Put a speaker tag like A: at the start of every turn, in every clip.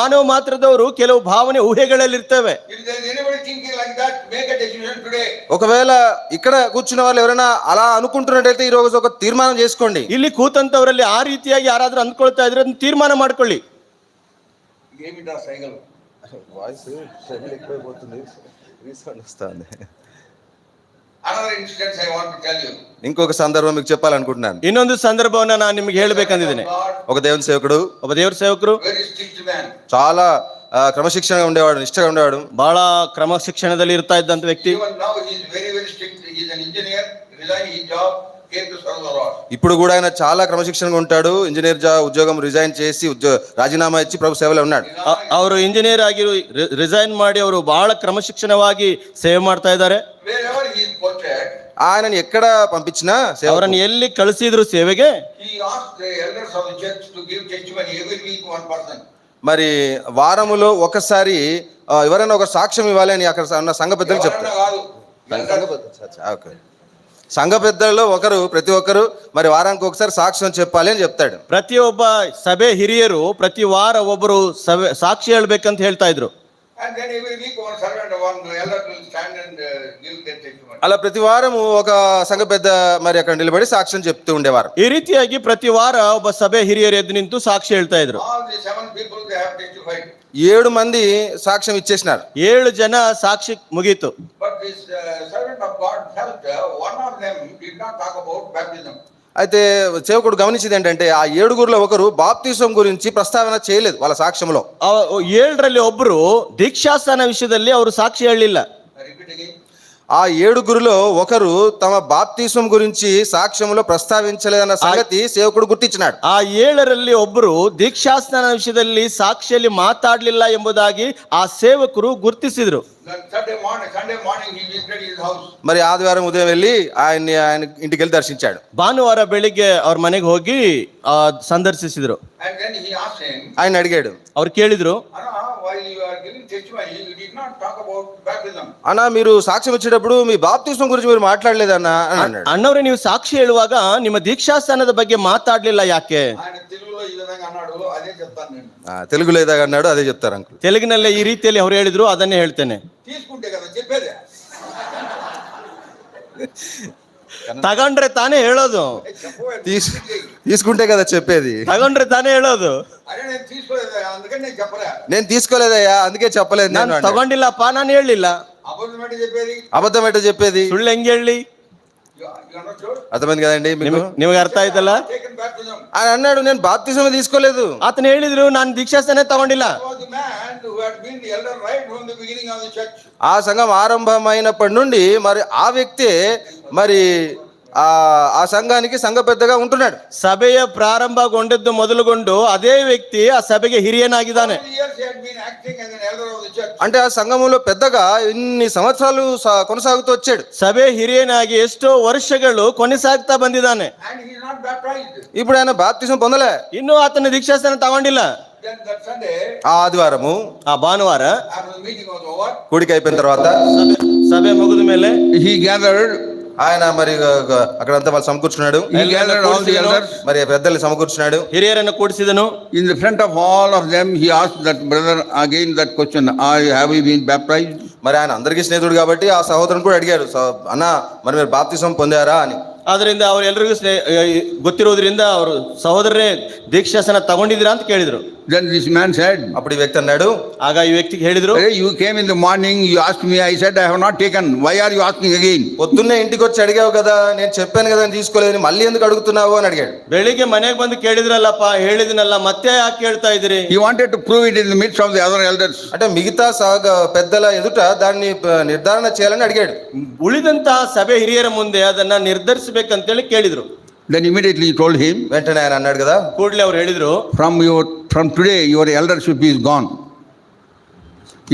A: ಮಾನವ ಮಾತ್ರದವರು ಕೆಲವು ಭಾವನೆ ಊಹೆಗಳಲ್ಲಿರ್ತವೆ
B: If there is anybody thinking like that, make a decision today.
C: ఒకవేళ ఇక్కడ కూర్చున్న వాళ్ళు ఎవరైనా అలా అనుకుంటున్నట్టయితే ఈ రోజు ఒక తీర్మానం చేసుకోండి
A: ಇಲ್ಲಿ ಕೂತಂತವರಲ್ಲಿ ಆ ರೀತಿಯಾಗಿ ಯಾರಾದ್ರೂ ಅಂದ್ಕೊಳ್ತಾ ಇದ್ರೆ ಅದನ್ನ ತೀರ್ಮಾನ ಮಾಡ್ಕೊಳ್ಳಿ
B: Give me the cycle. Another instance I want to tell you.
C: ఇంకొక సందర్భం మీకు చెప్పాలనుకుంటున్నాను
A: ಇನ್ನೊಂದು ಸಂದರ್ಭವನ್ನ ನಾನು ನಿಮ್ಗೆ ಹೇಳ್ಬೇಕಂದಿದ್ದೀನಿ
B: God,
C: ఒక దేవుని సేవకుడు
A: ಒಬ್ಬ ದೇವ್ರ ಸೇವಕರು
B: very strict man.
C: చాలా ఆ, ಕ್ರಮಶಿಕ್ಷಣగా ఉండేవాడు నిಷ್ಠగా ఉండేవాడు
A: ಬಹಳ ಕ್ರಮ ಶಿಕ್ಷಣದಲ್ಲಿ ಇರ್ತಾ ಇದ್ದಂತ ವ್ಯಕ್ತಿ
B: Even now he is very, very strict. He is an engineer, resigned his job, came to serve the Lord.
C: ఇప్పుడు కూడా ఆయన చాలా క్రమశిక్షణగా ఉంటాడు ఇంజనీర్ జా ఉద్యోగం రిజైన్ చేసి ఉద్యో రాజీనామా ఇచ్చి ప్రభు సేవలో ఉన్నాడు
A: ಅ- ಅವರು ಇಂಜಿನಿಯರ್ ಆಗಿ ರಿಸೈನ್ ಮಾಡಿ ಅವರು ಬಹಳ ಕ್ರಮಶಿಕ್ಷಣವಾಗಿ ಸೇವೆ ಮಾಡ್ತಾ ಇದ್ದಾರೆ
B: Wherever he is posted,
C: ఆయనని ఎక్కడ పంపించినా సేవ
A: ಅವರನ್ನು ಎಲ್ಲಿ ಕಳಿಸಿದ್ರು ಸೇವೆಗೆ
B: he asked the elders of the church to give testimony every week one person.
C: మరి వారములో ఒకసారి ఆ, ఎవరైనా ఒక సాక్ష్యం ఇవ్వాలి అని అక్కడ ఉన్న సంఘ పెద్దలకు చెప్తారు
B: ఎవరన్నా కాదు. Elders.
C: ఆ, ఓకే. సంఘ పెద్దల్లో ఒకరు ప్రతి ఒక్కరు మరి వారానికి ఒకసారి సాక్ష్యం చెప్పాలి అని చెప్తాడు
A: ಪ್ರತಿಯೊಬ್ಬ ಸಭೆ ಹಿರಿಯರು ಪ್ರತಿ ವಾರ ಒಬ್ಬರು ಸಭೆ ಸಾಕ್ಷಿ ಹೇಳ್ಬೇಕಂತ ಹೇಳ್ತಾ ಇದ್ರು
B: And then every week one servant, one elder will stand and uh, give their testimony.
C: అలా ప్రతి వారము ఒక సంఘ పెద్ద మరి అక్కడ నిలబడి సాక్ష్యం చెప్తూ ఉండేవారు
A: ಈ ರೀತಿಯಾಗಿ ಪ್ರತಿ ವಾರ ಒಬ್ಬ ಸಭೆ ಹಿರಿಯರು ಎದ್ದು ನಿಂತು ಸಾಕ್ಷಿ ಹೇಳ್ತಾ ಇದ್ರು
B: All the seven people, they have testified.
C: ఏడు మంది సాక్ష్యం ఇచ్చేసినారు
A: ಏಳು ಜನ ಸಾಕ್ಷಿ ಮುಗೀತು
B: But this uh, servant of God felt uh, one of them did not talk about baptism.
C: అయితే సేవకుడు గమనించింది ఏంటంటే ఆ ఏడుగురులో ఒకరు బాప్తీసం గురించి ప్రస్తావన చేయలేదు వాళ్ళ సాక్ష్యంలో
A: ಅವ- ಏಳರಲ್ಲಿ ಒಬ್ರು ದೀಕ್ಷಾಸ್ಥಾನ ವಿಷಯದಲ್ಲಿ ಅವರು ಸಾಕ್ಷಿ ಹೇಳಲಿಲ್ಲ
B: I repeat again.
C: ఆ ఏడుగురులో ఒకరు తమ బాప్తీసం గురించి సాక్ష్యంలో ప్రస్తావించలేదన్న సంగతి సేవకుడు గుర్తించినాడు
A: ಆ ಏಳರಲ್ಲಿ ಒಬ್ರು ದೀಕ್ಷಾಸ್ಥಾನ ವಿಷಯದಲ್ಲಿ ಸಾಕ್ಷಿಯಲ್ಲಿ ಮಾತಾಡಲಿಲ್ಲ ಎಂಬುದಾಗಿ ಆ ಸೇವಕರು ಗುರುತಿಸಿದ್ರು
B: Then Sunday morning, Sunday morning, he visited his house.
C: మరి ఆదివారం ఉదయం వెళ్ళి ఆయన్ని ఆయన ఇంటికి వెళ్ళి దర్శించాడు
A: ಭಾನುವಾರ ಬೆಳಿಗ್ಗೆ ಅವ್ರ ಮನೆಗೆ ಹೋಗಿ ಆ, ಸಂದರ್ಶಿಸಿದ್ರು
B: And then he asked him,
C: ఆయన అడిగాడు
A: ಅವ್ರು ಕೇಳಿದ್ರು
B: Anna, while you are giving testimony, you did not talk about baptism.
C: అన్నా మీరు సాక్ష్యం ఇచ్చేటప్పుడు మీ బాప్తీసం గురించి మీరు మాట్లాడలేదన్నా అని అన్నాడు
A: ಅಣ್ಣವ್ರೆ ನೀವು ಸಾಕ್ಷಿ ಹೇಳುವಾಗ ನಿಮ್ಮ ದೀಕ್ಷಾಸ್ಥಾನದ ಬಗ್ಗೆ ಮಾತಾಡ್ಲಿಲ್ಲ ಯಾಕೆ
B: ఆయన తెలుగులో ఈ విధంగా అన్నాడు అదే చెప్తాను నేను
C: ఆ, తెలుగు లేదా అన్నాడు అదే చెప్తారు అంకుల్
A: ತೆಲುಗಿನಲ್ಲೇ ಈ ರೀತಿಯಲ್ಲಿ ಅವ್ರು ಹೇಳಿದ್ರು ಅದನ್ನೇ ಹೇಳ್ತೇನೆ
B: తీసుకుంటే కదా చెప్పేది
A: ತಗೊಂಡ್ರೆ ತಾನೇ ಹೇಳೋದು
B: ఏ చెప్పవే,
C: తీసు
B: తీసుకుంటే.
C: తీసుకుంటే కదా చెప్పేది
A: ತಗೊಂಡ್ರೆ ತಾನೇ ಹೇಳೋದು
B: అరే నేను తీసుకోలేదు అందుకని నేను చెప్పలే
C: నేను తీసుకోలేదయ్యా అందుకే చెప్పలేదు నేను
A: ನಾನು
C: అన్నాడు.
A: ತಗೊಂಡಿಲ್ಲಪ್ಪ ನಾನು ಹೇಳಲಿಲ್ಲ
B: అబద్ధం ఏంటి చెప్పేది
C: అబద్ధం ఎట్ట చెప్పేది
A: ಸುಳ್ಳು ಹೆಂಗ್ ಹೇಳಿ
C: అర్థమైంది కదండి మీకు
A: ನಿಮಗ್- ನಿಮಗೆ ಅರ್ಥ ಆಯ್ತಲ್ಲ
B: టేకన్ బ్యాప్టిజం
C: ఆయన అన్నాడు నేను బాప్తిసం తీసుకోలేదు
A: ಆತನ ಹೇಳಿದ್ರು ನಾನು ದೀಕ್ಷಾಸ್ಥಾನ ತಗೊಂಡಿಲ್ಲ
B: was the man who had been the elder right from the beginning of the church.
C: ఆ సంఘం ఆరంభమైనప్పటి నుండి మరి ఆ వ్యక్తే మరి ఆ ఆ సంఘానికి సంఘ పెద్దగా ఉంటున్నాడు
A: ಸಭೆಯ ಪ್ರಾರಂಭಗೊಂಡದ್ದು ಮೊದಲುಗೊಂಡು ಅದೇ ವ್ಯಕ್ತಿ ಆ ಸಭೆಗೆ ಹಿರಿಯನಾಗಿದ್ದಾನೆ
B: All years he had been acting as an elder of the church.
C: అంటే ఆ సంఘములో పెద్దగా ఇన్ని సంవత్సరాలు సా- కొనసాగుతూ వచ్చాడు
A: ಸಭೆ ಹಿರಿಯನಾಗಿ ಎಷ್ಟೋ ವರ್ಷಗಳು ಕೊನೆಸಾಗ್ತಾ ಬಂದಿದ್ದಾನೆ
B: And he is not baptized.
C: ఇప్పుడు ఆయన బాప్తిసం పొందలే
A: ಇನ್ನೂ ಆತನ ದೀಕ್ಷಾಸ್ಥಾನ ತಗೊಂಡಿಲ್ಲ
B: Then that Sunday,
C: ఆ ఆదివారము
A: ಆ ಭಾನುವಾರ
B: after the meeting was over,
C: కూడిక అయిపోయిన తర్వాత
A: ಸಭೆ- ಸಭೆ ಮುಗಿದ ಮೇಲೆ
B: he gathered,
C: ఆయన మరి గ- గ- అక్కడంతా వాళ్ళు సమకೂర్చున్నాడు
B: he gathered all the elders.
C: మరి పెద్దల్ని సమకూర్చున్నాడు
A: ಹಿರಿಯರನ್ನು ಕೂಡಿಸಿದನು
B: In the front of all of them, he asked that brother again that question, "Are have you been baptized?
C: మరి ఆయన అందరికీ స్నేహితుడు కాబట్టి ఆ సహోదరుని కూడా అడిగాడు "స- అన్న మరి మీరు బాప్తిసం పొందారా అని
A: ಆದ್ರಿಂದ ಅವ್ರು ಎಲ್ರಿಗೂ ಸ್ನೇ- ಗೊತ್ತಿರೋದ್ರಿಂದ ಅವರು ಸಹೋದರರೇ ದೀಕ್ಷಾಸನ ತಗೊಂಡಿದ್ದೀರಾ ಅಂತ ಕೇಳಿದ್ರು
B: Then this man said,
C: అప్పుడు ఈ వ్యక్తి అన్నాడు
A: ಆಗ ಈ ವ್ಯಕ್ತಿಗೆ ಹೇಳಿದ್ರು
B: "Hey, you came in the morning, you asked me, I said, I have not taken. Why are you asking again?
C: పొద్దున్నే ఇంటికి వచ్చి అడిగావు కదా నేను చెప్పాను కదా నేను తీసుకోలేదని మళ్ళీ ఎందుకు అడుగుతున్నావు అని అడిగాడు
A: ಬೆಳಿಗ್ಗೆ ಮನೆಗೆ ಬಂದು ಕೇಳಿದ್ರಲ್ಲಪ್ಪ ಹೇಳಿದ್ನಲ್ಲ ಮತ್ತೆ ಯಾಕೆ ಕೇಳ್ತಾ ಇದ್ದೀರಿ
B: He wanted to prove it in the midst of the other elders.
C: అంటే మిగతా సాగ పెద్దల ఎదుట దాన్ని ప- నిర్ధారణ చేయాలని అడిగాడు
A: ಉಳಿದಂತಹ ಸಭೆ ಹಿರಿಯರ ಮುಂದೆ ಅದನ್ನ ನಿರ್ಧರಿಸಬೇಕಂತೇಳಿ ಕೇಳಿದ್ರು
B: Then immediately he told him,
C: వెంటనే ఆయన అన్నాడు కదా
A: ಕೂಡಲೇ ಅವ್ರು ಹೇಳಿದ್ರು
B: from your from today your eldership is gone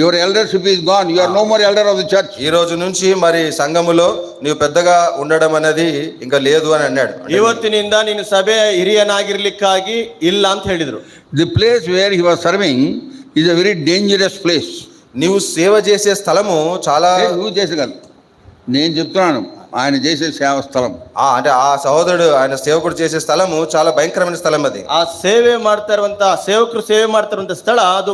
B: your eldership is gone you are no more elder of the church
C: ఈ రోజు నుంచి మరి సంఘములో నీవు పెద్దగా ఉండడం అనేది ఇంకా లేదు అని అన్నాడు అంటే
A: ಇವತ್ತಿನಿಂದ ನೀನು ಸಭೆ ಹಿರಿಯನಾಗಿರ್ಲಿಕ್ಕಾಗಿ ಇಲ್ಲ ಅಂತ ಹೇಳಿದ್ರು
B: the place where he was serving is a very dangerous place
C: నీవు సేవ చేసే స్థలము చాలా
B: ఏ, నువ్వు చేసగలరు నేను చెప్తున్నాను ఆయన చేసే సేవ స్థలం
C: ఆ, అంటే ఆ సహోదరుడు ఆయన సేవకుడు చేసే స్థలము చాలా భయంకరమైన స్థలం అది
A: ಆ ಸೇವೆ ಮಾಡ್ತಾ ಇರುವಂತಹ ಸೇವಕರು ಸೇವೆ ಮಾಡ್ತಾ ಇರುವಂತಹ ಸ್ಥಳ ಅದು